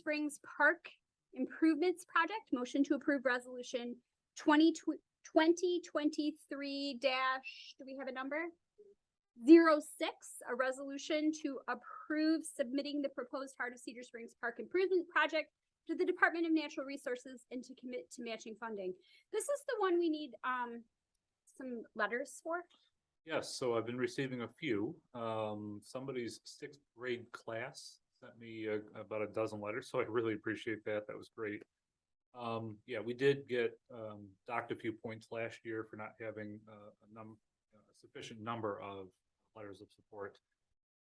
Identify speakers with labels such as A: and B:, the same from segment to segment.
A: Springs Park Improvements Project. Motion to approve resolution twenty twenty twenty-three dash, do we have a number? Zero six, a resolution to approve submitting the proposed Heart of Cedar Springs Park Improvement Project to the Department of Natural Resources and to commit to matching funding. This is the one we need, um, some letters for.
B: Yes, so I've been receiving a few. Um, somebody's sixth grade class sent me uh, about a dozen letters, so I really appreciate that. That was great. Um, yeah, we did get, um, docked a few points last year for not having, uh, a num, a sufficient number of letters of support.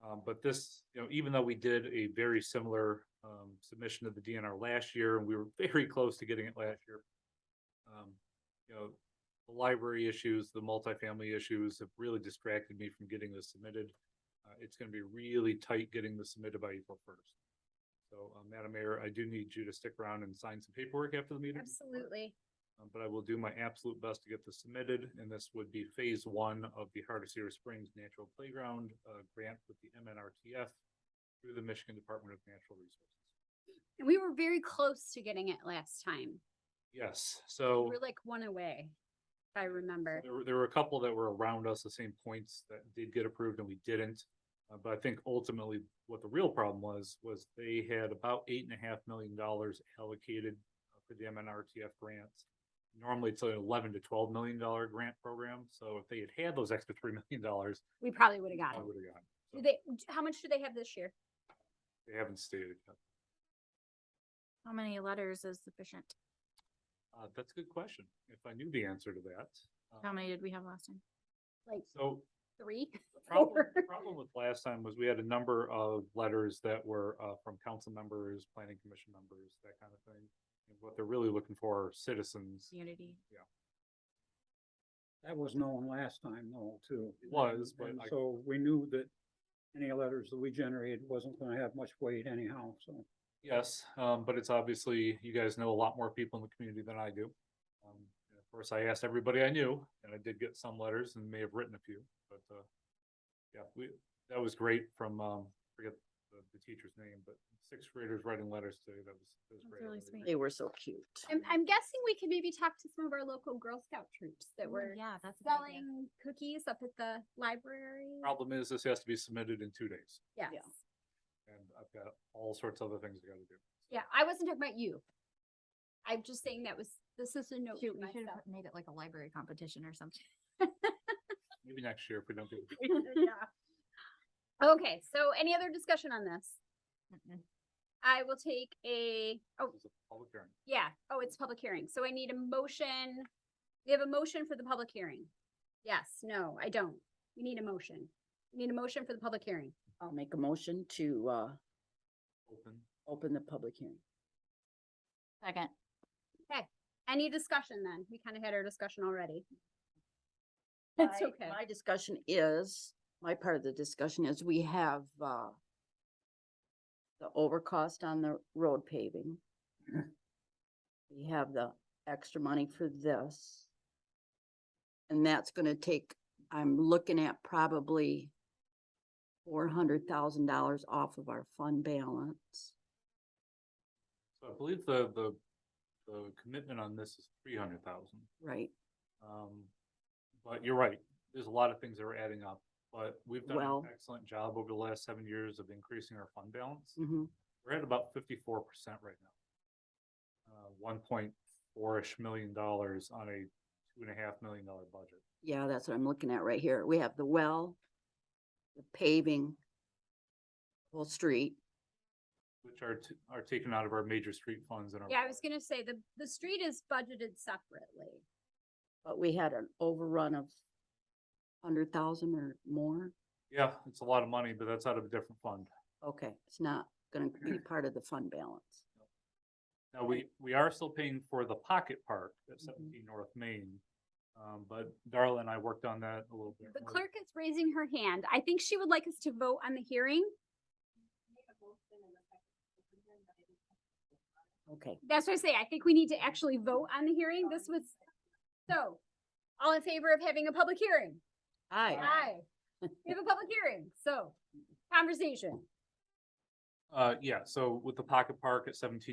B: Um, but this, you know, even though we did a very similar, um, submission to the DNR last year, and we were very close to getting it last year. Um, you know, the library issues, the multifamily issues have really distracted me from getting this submitted. Uh, it's gonna be really tight getting this submitted by April first. So, uh, Madam Mayor, I do need you to stick around and sign some paperwork after the meeting.
A: Absolutely.
B: Uh, But I will do my absolute best to get this submitted, and this would be phase one of the Heart of Cedar Springs Natural Playground, uh, grant with the MNRTF through the Michigan Department of Natural Resources.
A: And we were very close to getting it last time.
B: Yes,
A: We
B: so.
A: were like one away, if I remember.
B: There were, there were a couple that were around us, the same points that did get approved and we didn't. Uh, but I think ultimately what the real problem was, was they had about eight and a half million dollars allocated uh, for the MNRTF grants. Normally it's an eleven to twelve million dollar grant program, so if they had had those extra three million dollars,
A: We probably would have
B: I
A: got it.
B: would have gotten. it.
A: Do they, how much do they have this year?
B: They haven't stated. yet.
C: How many letters is sufficient?
B: Uh, that's a good question. If I knew the answer to that. uh,
C: How many did we have last time?
A: Like
B: So
A: three?
B: The Problem,
A: Or-
B: the problem with last time was we had a number of letters that were, uh, from council members, planning commission members, that kind of thing. And What they're really looking for are citizens
C: Unity.
D: That was known last time though, too.
B: It was, but
D: And
B: I-
D: So we knew that any letters that we generated wasn't gonna have much weight anyhow, so.
B: Yes, um, but it's obviously, you guys know a lot more people in the community than I do. Um, and Of course, I asked everybody I knew, and I did get some letters and may have written a few, but, uh, yeah, we, that was great from, um, forget the, the teacher's name, but sixth graders writing letters to, you, that was, that was
C: That's
B: great. I
C: really
B: really
C: sweet.
E: They were so cute.
A: I'm, I'm guessing we could maybe talk to some of our local Girl Scout troops that
C: Oh,
A: were
C: Yeah, that's. a good idea.
A: selling cookies up at the library.
B: Problem is, this has to be submitted in two days.
A: Yes.
E: yeah.
B: and I've got all sorts of other things I gotta do.
A: Yeah, I wasn't talking about you. I'm just saying that was, this is a note to
C: Shoot, we should
A: myself.
C: have made it like a library competition or something.
B: Maybe next year if we don't do. it.
A: Okay, so any other discussion on this?
C: Mm-mm.
A: I will take a, oh,
B: It's a public hearing.
A: yeah, oh, it's public hearing, so I need a motion. We have a motion for the public hearing. Yes, no, I don't. We need a motion. We need a motion for the public hearing.
E: I'll make a motion to uh
B: Open.
E: open the public hearing.
C: Second.
A: Any discussion then? We kind of had our discussion already.
E: That's
A: That's okay.
E: My discussion is, my part of the discussion is we have uh the overcost on the road paving. We have the extra money for this. And that's gonna take, I'm looking at probably four hundred thousand dollars off of our fund balance.
B: So I believe the, the, the commitment on this is three hundred thousand.
E: Right,
B: Um, but you're right, there's a lot of things that are adding up, but we've done an
E: Well-
B: excellent job over the last seven years of increasing our fund balance.
E: hmm
B: We're at about fifty-four percent right now. Uh, one point four-ish million dollars on a two and a half million dollar budget.
E: Yeah, that's what I'm looking at right here. We have the well, the paving, whole street.
B: Which are, t- are taken out of our major street funds and our.
A: Yeah, I was gonna say, the, the street is budgeted separately.
E: But we had an overrun of hundred thousand or more.
B: Yeah, it's a lot of money, but that's out of a different fund.
E: Okay, it's not gonna be part of the fund balance.
B: Now, we, we are still paying for the pocket park at
E: Mhm.
B: seventeen North Main. Um, but Darla and I worked on that a little bit.
A: The
B: more.
A: clerk is raising her hand. I think she would like us to vote on the hearing.
E: Okay,
A: That's what I say. I think we need to actually vote on the hearing. This was, so, all in favor of having a public hearing?
E: aye.
A: Aye. We have a public hearing, so, conversation.
B: Uh, yeah, so with the pocket park at seventeen